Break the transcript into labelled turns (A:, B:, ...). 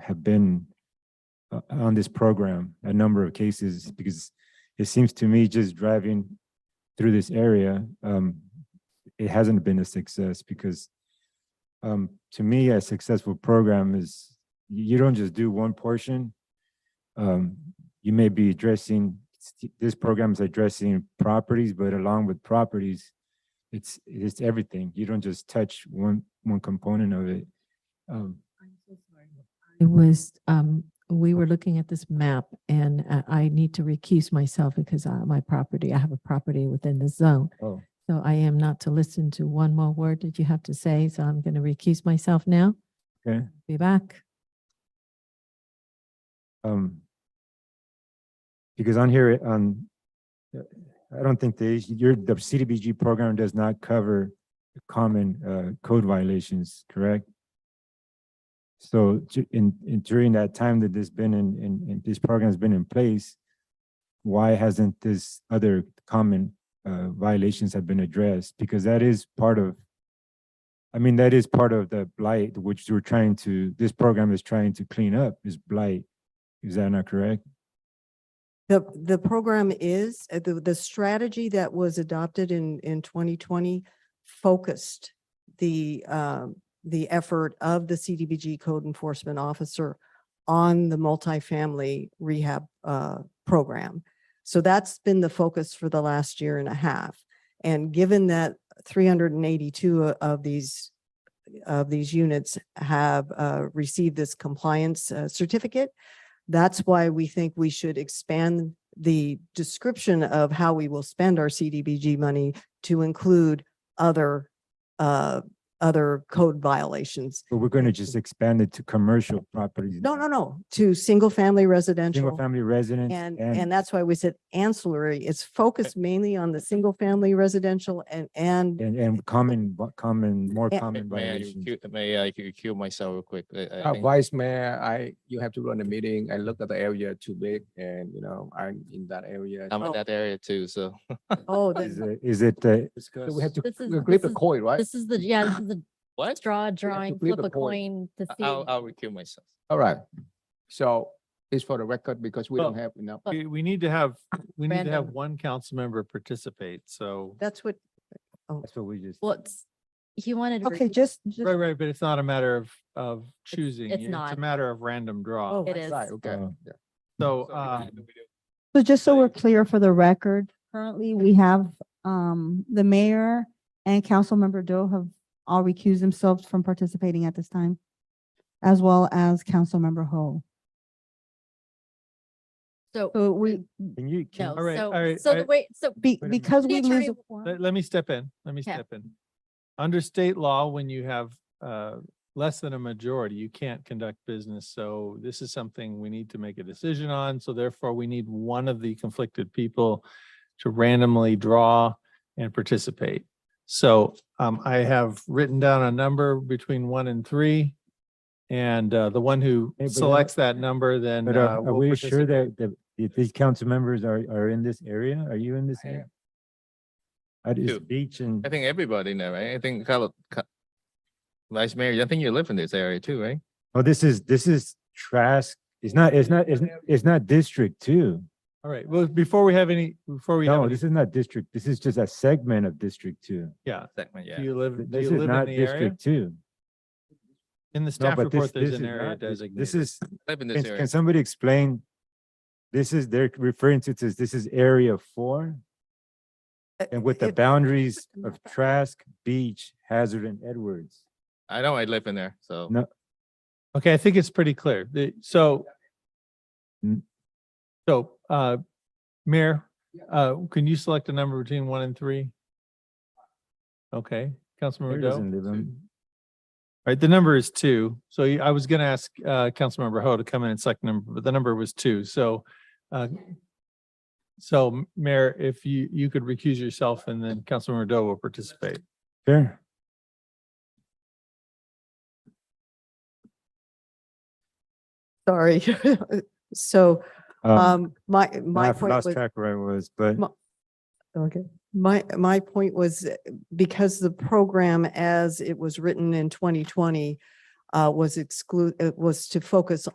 A: have been uh, on this program, a number of cases, because it seems to me just driving through this area, um, it hasn't been a success because um, to me, a successful program is you you don't just do one portion. Um, you may be addressing, this program is addressing properties, but along with properties, it's, it's everything. You don't just touch one, one component of it. Um,
B: It was, um, we were looking at this map and uh, I need to recuse myself because uh, my property, I have a property within the zone.
A: Oh,
B: So I am not to listen to one more word that you have to say, so I'm going to recuse myself now.
A: Okay.
B: Be back.
A: um, because on here, on, uh, I don't think the, your, the CDBG program does not cover common, uh, code violations, correct? So ju- in, in during that time that this been in, in, in this program's been in place, why hasn't this other common, uh, violations have been addressed? Because that is part of, I mean, that is part of the blight, which we're trying to, this program is trying to clean up is blight. Is that not correct?
C: The, the program is, uh, the, the strategy that was adopted in, in twenty twenty focused the, um, the effort of the CDBG code enforcement officer on the multifamily rehab, uh, program. So that's been the focus for the last year and a half. And given that three hundred and eighty-two uh, of these, of these units have, uh, received this compliance uh, certificate, that's why we think we should expand the description of how we will spend our CDBG money to include other, uh, other code violations.
A: But we're gonna just expand it to commercial properties.
C: No, no, no, to single-family
A: Single
C: residential.
A: family residents
C: And,
A: and,
C: and that's why we said ancillary. It's focused mainly on the single-family residential and, and
A: and, and common, vi- common, more
C: Yeah.
A: common
D: May I,
A: violations.
D: recu- may I recuse myself real quick? I- I
E: Oh,
F: Uh,
D: think-
F: Vice Mayor, I, you have to run a meeting. I look at the area too big and, you know, I'm in that area.
D: I'm
C: Oh.
D: in that area too, so.
C: Oh, the-
A: Is it- Is it, uh,
F: So we have to
G: This is-
F: we flip
G: this
F: a
G: is-
F: coin, right?
G: This is the, yeah, this is the
D: What?
G: draw, drawing,
F: flip
G: flip
F: a
G: a
F: coin.
G: coin to
D: I'll,
G: see.
D: I'll recuse myself.
F: All right. So it's for the record because we don't
E: Well-
F: have enough.
E: We, we need to have, we need to have
G: Random.
E: one council member participate, so.
C: that's what,
A: that's what we just,
G: What's, he wanted. to
C: okay,
G: recuse-
C: just,
E: Right, right, but it's not a matter of, of choosing.
G: it's
E: It's
G: not.
E: a matter of random draw.
C: Oh,
G: It is.
F: Right, okay.
A: Uh,
F: yeah.
E: So,
D: So
E: uh,
D: we do- we do-
H: So just so we're clear for the record, currently we have um the mayor and Councilmember Doe have all recused themselves from participating at this time, as well as Councilmember Ho.
G: So,
H: So we,
A: can you,
G: no,
A: can,
E: All right, all
G: so,
E: right,
G: so
E: I-
G: the way, so
H: be,
E: Wait a minute.
H: because
G: The
H: we
G: attorney
H: lose. a
G: will-
H: quorum-
E: let, let me step in, let me
G: Yeah.
E: step in. Under state law, when you have, uh, less than a majority, you can't conduct business. So this is something we need to make a decision on. So therefore, we need one of the conflicted people to randomly draw and participate. So, um, I have written down a number between one and three. And, uh, the one who
A: but, uh,
E: selects that number then.
A: but uh,
E: uh,
A: are
E: will
A: we sure
E: participate.
A: that, that if these council members are, are in this area? Are you in this
F: I
A: area? At this
D: Two.
A: beach and,
D: I think everybody in there, right? I think Carlo, Ca- Vice Mayor, I think you live in this area too, right?
A: oh, this is, this is Trask. It's not, it's not, it's, it's not District Two.
E: All right, well, before we have any, before we. have
A: No,
E: any-
A: this is not District. This is just a segment of District Two.
E: Yeah,
D: Segment,
E: do
D: yeah.
E: you live, do
A: This
E: you
A: is
E: live in
A: not
E: the area?
A: District Two.
E: In the
A: No,
E: staff
A: but this, this
E: report, there's
A: is
E: an area
A: not, this-
E: designated.
A: this is,
D: Live in this
A: Can,
D: area.
A: can somebody explain? This is, they're referring to, this, this is area four and with the
C: Uh, it-
A: boundaries of Trask, Beach, Hazard and Edwards.
D: I know I live in there, so.
A: No.
E: Okay, I think it's pretty clear. The, so.
A: Mm.
E: So, uh, Mayor, uh, can you select a number between one and three? Okay,
A: Mayor
E: Councilmember Doe?
A: doesn't live
E: All
A: in-
E: right, the number is two. So you- I was gonna ask, uh, Councilmember Ho to come in and select number, but the number was two, so, uh, so M- Mayor, if you, you could recuse yourself and then Councilmember Doe will participate.
A: Sure.
C: sorry. So,
A: Um,
C: um, my,
A: now
C: my
A: I've
C: point
A: lost
C: was.
A: track where I was, but
C: My- Okay. My, my point was uh, because the program as it was written in twenty twenty uh, was exclude, was to focus